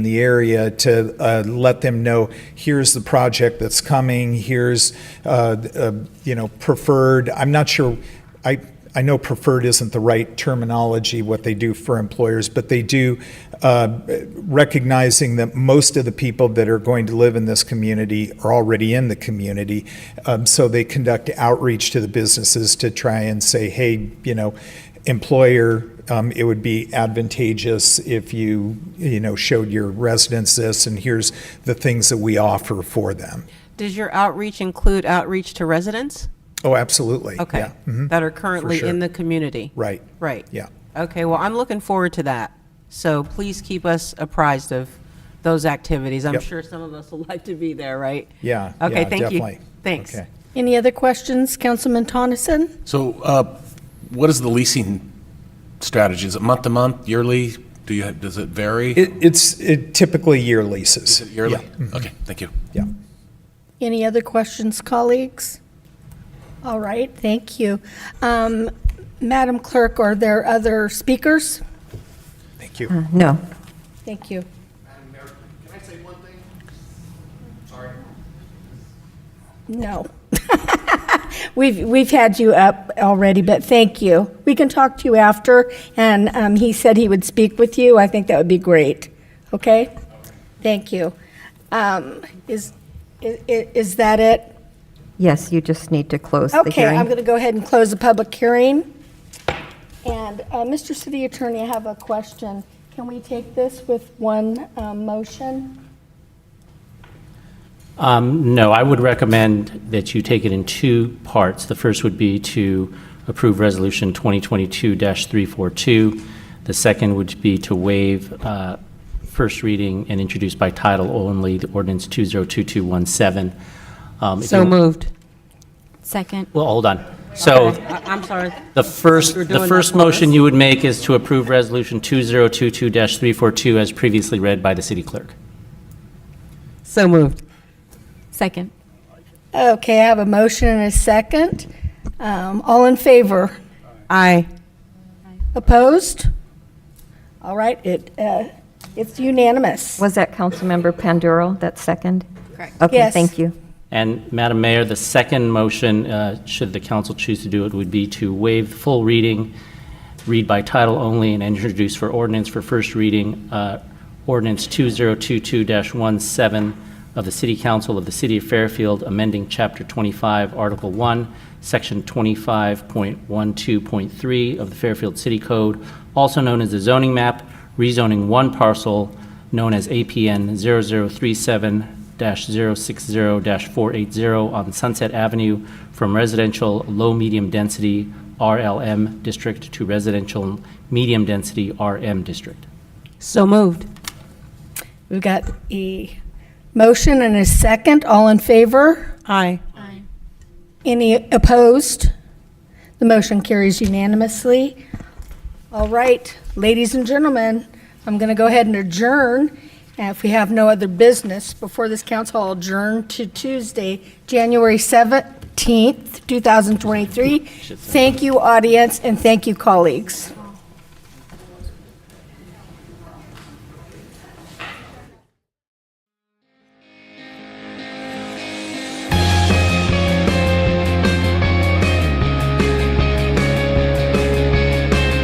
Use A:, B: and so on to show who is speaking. A: in the area to uh, let them know, here's the project that's coming, here's, uh, uh, you know, preferred, I'm not sure, I, I know preferred isn't the right terminology, what they do for employers, but they do, uh, recognizing that most of the people that are going to live in this community are already in the community. Um, So they conduct outreach to the businesses to try and say, hey, you know, employer, um, it would be advantageous if you, you know, showed your residents this, and here's the things that we offer for them.
B: Does your outreach include outreach to residents?
A: Oh, absolutely.
B: Okay.
A: Yeah. Mhm.
B: That are currently
A: sure.
B: in the community?
A: Right.
B: Right.
A: Yeah.
B: Okay, well, I'm looking forward to that. So please keep us apprised of those activities. I'm
A: Yep.
B: sure some of us would like to be there, right?
A: Yeah.
B: Okay,
A: yeah,
B: thank you.
A: definitely.
B: Thanks.
A: Okay.
C: Any other questions, Councilman Tonneson?
D: So uh, what is the leasing strategy? Is it month to month, yearly? Do you, have- does it vary?
A: It, it's it typically year leases.
D: Is it Yearly?
A: Yeah. Mm-hmm.
D: Okay, thank you.
A: Yeah.
C: Any other questions, colleagues? All right, thank you. Um, Madam Clerk, are there other speakers?
A: Thank you.
E: No.
C: Thank you.
F: Madam Mayor, can I say one thing? Sorry.
C: No. We've, we've had you up already, but thank you. We can talk to you after, and um, he said he would speak with you. I think that would be great. Okay? Thank you. Um, Is, i- i- is that it?
E: Yes, you just need to close the
C: Okay, I'm
E: hearing.
C: going to go ahead and close the public hearing. And, uh, Mr. City Attorney, I have a question. Can we take this with one um, motion?
G: Um, No, I would recommend that you take it in two parts. The first would be to approve Resolution 2022-342. The second would be to waive uh, first reading and introduce by title only the ordinance 202217. Um, if
B: So
G: you-
B: moved.
H: Second.
G: Well, hold on. So
B: I- I'm sorry.
G: the first,
B: You're doing
G: the first
B: that for us?
G: motion you would make is to approve Resolution 2022-342 as previously read by the city clerk.
H: So moved. Second.
C: Okay, I have a motion and a second. Um, All in favor?
B: Aye.
C: Opposed? All right, it, uh, it's unanimous.
E: Was that Councilmember Panduro, that second? Correct. Okay,
C: Yes.
E: thank you.
G: And Madam Mayor, the second motion, uh, should the council choose to do it, would be to waive the full reading, read by title only, and introduce for ordinance for first reading, uh, ordinance 2022-17 of the City Council of the City of Fairfield, amending Chapter 25, Article 1, Section 25.12.3 of the Fairfield City Code, also known as the zoning map, rezoning one parcel known as APN 0037-060-480 on Sunset Avenue from residential low-medium density RLM district to residential medium density RM district.
B: So moved.
C: We've got a motion and a second. All in favor?
B: Aye.
C: Any opposed? The motion carries unanimously. All right, ladies and gentlemen, I'm going to go ahead and adjourn. And If we have no other business before this council, I'll adjourn to Tuesday, January 17th, 2023. Thank you, audience, and thank you, colleagues.